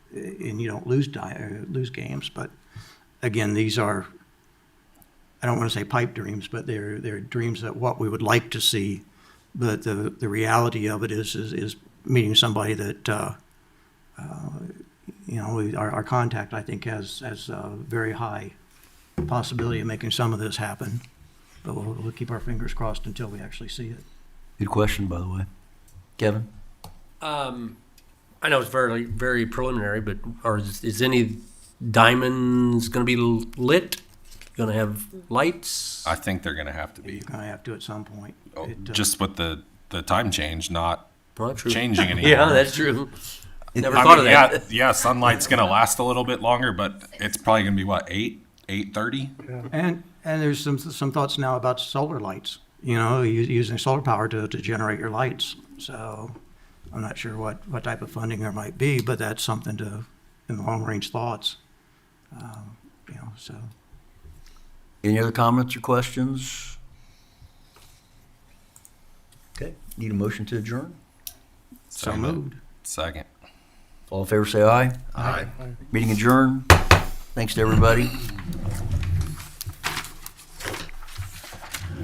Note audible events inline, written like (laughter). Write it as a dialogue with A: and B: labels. A: and you don't lose di, uh, lose games, but again, these are, I don't want to say pipe dreams, but they're, they're dreams that what we would like to see. But the, the reality of it is, is, is meeting somebody that, uh, uh, you know, we- our, our contact, I think, has, has a very high possibility of making some of this happen. But we'll, we'll keep our fingers crossed until we actually see it.
B: Good question, by the way. Kevin?
C: Um, I know it's very, very preliminary, but are, is any diamonds gonna be lit? Gonna have lights?
D: I think they're going to have to
A: You're
D: be.
A: gonna have to at some point.
D: Oh,
A: It, uh,
D: Just with the, the time change, not
C: Not true. (laughs)
D: changing anymore.
C: Yeah, that's true. Never
D: I
C: thought of
D: mean,
C: that.
D: Yeah, yeah, sunlight's going to last a little bit longer, but it's probably going to be what, 8, 8.30?
A: And, and there's some, some thoughts now about solar lights, you know, u- using solar power to, to generate your lights. So I'm not sure what, what type of funding there might be, but that's something to, in the long range thoughts. Um, You know, so,
B: Any other comments or questions? Okay, need a motion to adjourn?
A: so moved.
D: Second.
B: All in favor, say aye.
D: Aye.
B: Meeting adjourned. Thanks to everybody.